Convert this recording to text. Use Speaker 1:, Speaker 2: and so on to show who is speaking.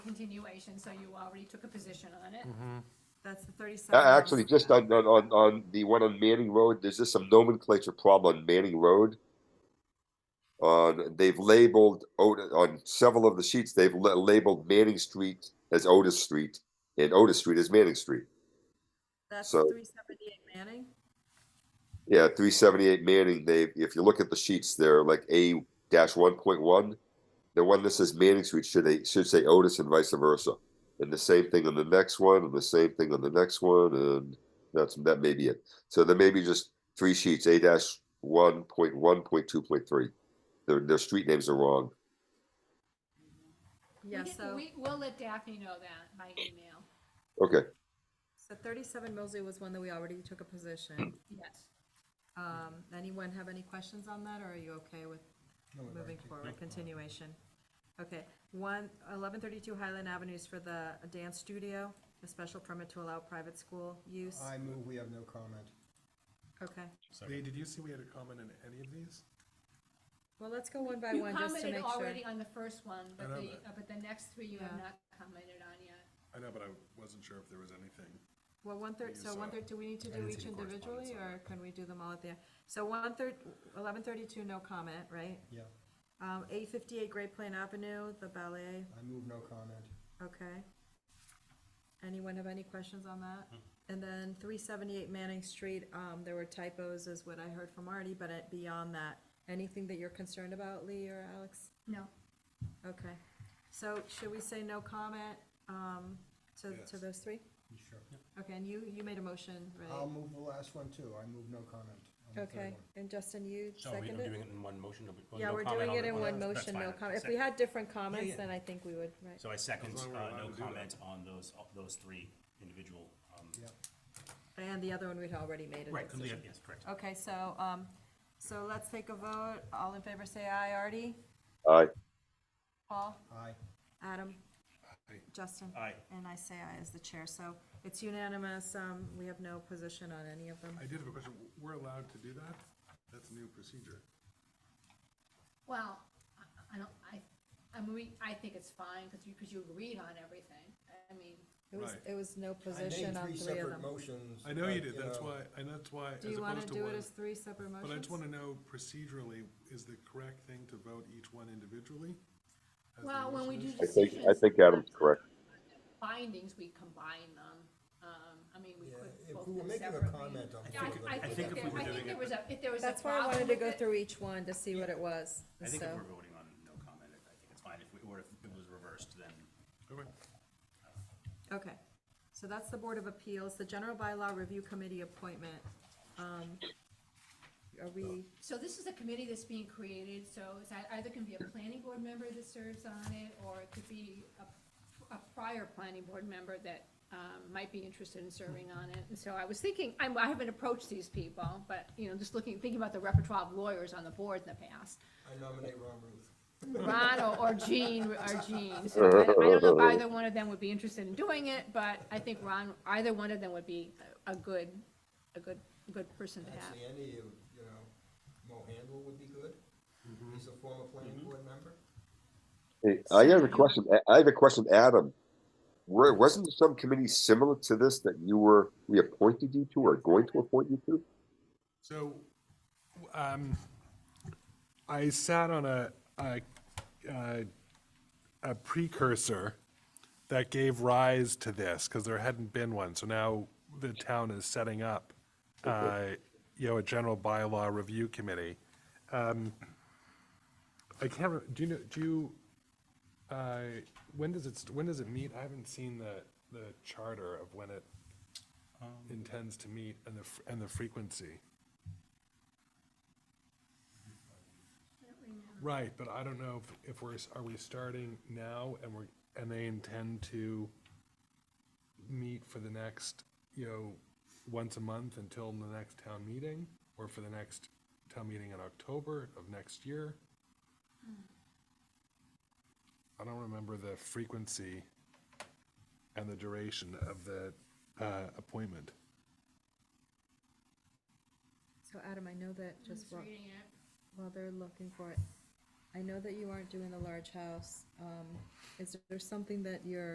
Speaker 1: continuation, so you already took a position on it.
Speaker 2: Mm-hmm. That's the
Speaker 3: A-
Speaker 2: thirty-seven.
Speaker 3: Uh, Actually, just on, on, on, on the one on Manning Road, there's just some nomenclature problem on Manning Road. On, they've labeled, Ot- on several of the sheets, they've la- labeled Manning Street as Otis Street and Otis Street as Manning Street.
Speaker 2: That's
Speaker 3: so-
Speaker 2: three seventy-eight Manning.
Speaker 3: Yeah, three seventy-eight Manning, they, if you look at the sheets, they're like A dash one point one. The one that says Manning Street should, they should say Otis and vice versa. And the same thing on the next one, and the same thing on the next one, and that's, that may be it. So there may be just three sheets, A dash one point one, point two, point three. Their, their street names are wrong.
Speaker 1: We
Speaker 2: Yeah,
Speaker 1: can-
Speaker 2: so,
Speaker 1: We, we'll let Daphne know that by email,
Speaker 3: Okay,
Speaker 2: so thirty-seven Millsy was one that we already took a
Speaker 3: Hmm.
Speaker 2: position.
Speaker 1: yes.
Speaker 2: Um, anyone have any questions on that, or are you okay with moving forward, continuation? Okay, one, eleven thirty-two Highland Avenue is for the dance studio, a special permit to allow private school use.
Speaker 4: I move, we have no comment.
Speaker 2: Okay,
Speaker 5: Lee, did you see we had a comment in any of these?
Speaker 2: well, let's go one by
Speaker 1: You
Speaker 2: one just to
Speaker 1: commented
Speaker 2: make sure.
Speaker 1: already on the first one, but
Speaker 5: know
Speaker 1: the,
Speaker 5: that.
Speaker 1: uh, but the next three you have
Speaker 2: Yeah.
Speaker 1: not commented on yet.
Speaker 5: I know, but I wasn't sure if there was anything.
Speaker 2: Well, one third, so
Speaker 5: Use, uh,
Speaker 2: one third, do we need to do
Speaker 5: I didn't
Speaker 2: each
Speaker 5: see the correspondence
Speaker 2: individually,
Speaker 5: on
Speaker 2: or can we do them all at the end? So one third, eleven thirty-two, no comment, right?
Speaker 4: Yeah,
Speaker 2: Um, eight fifty-eight Great Plain Avenue, the ballet,
Speaker 4: I move, no comment.
Speaker 2: okay. Anyone have any questions on that?
Speaker 6: Hmm.
Speaker 2: And then three seventy-eight Manning Street, um, there were typos is what I heard from Artie, but it- beyond that, anything that you're concerned about, Lee or Alex?
Speaker 1: No.
Speaker 2: Okay, so should we say no comment, um, to,
Speaker 5: Yes.
Speaker 2: to those three?
Speaker 4: You sure?
Speaker 2: Okay, and you, you made a motion, right?
Speaker 4: I'll move the last one too. I move, no comment. on the third
Speaker 2: Okay,
Speaker 4: one.
Speaker 2: and Justin, you
Speaker 6: So we are
Speaker 2: seconded
Speaker 6: doing
Speaker 2: it?
Speaker 6: it in one motion? or we- or
Speaker 2: Yeah,
Speaker 6: no
Speaker 2: we're
Speaker 6: comment
Speaker 2: doing
Speaker 6: on
Speaker 2: it
Speaker 6: the-
Speaker 2: in
Speaker 6: on the-
Speaker 2: one
Speaker 6: that's
Speaker 2: motion, no
Speaker 6: fine.
Speaker 2: comment. If
Speaker 6: Sec-
Speaker 2: we had different comments,
Speaker 6: yeah.
Speaker 2: then I think we would, right.
Speaker 6: So I
Speaker 5: As
Speaker 6: second,
Speaker 5: long as we're
Speaker 6: uh,
Speaker 5: allowed
Speaker 6: no
Speaker 5: to do that.
Speaker 6: comment on those, those three individual, um,
Speaker 4: Yeah,
Speaker 2: And the other one, we'd already made
Speaker 6: right,
Speaker 2: a
Speaker 6: because we have-
Speaker 2: decision.
Speaker 6: yes, correct.
Speaker 2: Okay, so, um, so let's take a vote. All in favor, say aye. Artie?
Speaker 3: aye,
Speaker 2: Paul?
Speaker 4: aye.
Speaker 2: Adam?
Speaker 5: Aye.
Speaker 2: Justin?
Speaker 6: Aye.
Speaker 2: And I say aye as the chair, so it's unanimous. Um, we have no position on any of them.
Speaker 5: I did have a question. We're allowed to do that? That's a new procedure.
Speaker 1: Well, I- I don't, I, I mean, we- I think it's fine, because you, because you agreed on everything. I mean,
Speaker 2: It was,
Speaker 5: Right.
Speaker 2: it was no
Speaker 4: I made
Speaker 2: position on
Speaker 4: three
Speaker 2: three of
Speaker 4: separate
Speaker 2: them.
Speaker 4: motions.
Speaker 5: I know you
Speaker 4: but,
Speaker 5: did, that's
Speaker 4: know,
Speaker 5: why, and that's why, as
Speaker 2: Do you wanna
Speaker 5: opposed to
Speaker 2: do it
Speaker 5: one.
Speaker 2: as three separate motions?
Speaker 5: But I just want to know procedurally, is the correct thing to vote each one individually? as the
Speaker 1: well, when we
Speaker 5: motion
Speaker 1: do
Speaker 5: is?
Speaker 3: I think,
Speaker 1: decisions.
Speaker 3: I think Adam's correct.
Speaker 1: Findings, we combine them. Um, I mean, we
Speaker 4: Yeah,
Speaker 1: could.
Speaker 4: if
Speaker 1: vote
Speaker 4: we were
Speaker 1: them
Speaker 4: making a
Speaker 1: separately.
Speaker 4: comment on
Speaker 1: Yeah, I-
Speaker 4: particular-
Speaker 1: I
Speaker 4: I
Speaker 1: think
Speaker 6: think
Speaker 1: if
Speaker 6: if
Speaker 1: there-
Speaker 6: we were
Speaker 1: I think
Speaker 6: doing
Speaker 1: there
Speaker 6: it-
Speaker 1: was a, if there was a
Speaker 2: That's why I
Speaker 1: problem
Speaker 2: wanted to
Speaker 1: with
Speaker 2: go
Speaker 1: it-
Speaker 2: through each one to see what it was,
Speaker 6: I think if
Speaker 2: so.
Speaker 6: we're voting on no comment, I think it's fine. If we, or if it was reversed, then
Speaker 5: Okay.
Speaker 2: Okay, so that's the Board of Appeals, the General Bylaw Review Committee appointment. Um, Are we,
Speaker 1: So this is a committee that's being created, so it's ei- either can be a planning board member that serves on it, or it could be a, a prior planning board member that, um, might be interested in serving on it. And so I was thinking, I'm, I haven't approached these people, but, you know, just looking, thinking about the repertoire of lawyers on the board in the past.
Speaker 4: I nominate Ron Ruth.
Speaker 1: Ron or- or Jean, or Jean, so I I don't know if either one of them would be interested in doing it, but I think Ron, either one of them would be a a good, a good, good person to have.
Speaker 4: Actually, any of, you know, Mo Handel would be good.
Speaker 5: Mm-hmm.
Speaker 4: He's a former planning board member.
Speaker 3: Hey, I have a question, I- I have a question, Adam. Were, wasn't there some committee similar to this that you were, we appointed you to or going to appoint you to?
Speaker 5: So, um, I sat on a, a, a- a precursor that gave rise to this, because there hadn't been one, so now the town is setting up, uh, you know, a general bylaw review committee. Um, I can't, re- do you know, do you, uh, when does it, st- when does it meet? I haven't seen the, the charter of when it intends to meet and the, f- and the frequency. Right, but I don't know if, if we're, s- are we starting now and we're, and they intend to meet for the next, you know, once a month until the next town meeting? Or for the next town meeting in October of next year? I don't remember the frequency and the duration of the, uh, appointment.
Speaker 2: so Adam, I know that just
Speaker 1: Just
Speaker 2: while,
Speaker 1: reading it.
Speaker 2: while they're looking for it, I know that you aren't doing the large house. Um, Is there something that you're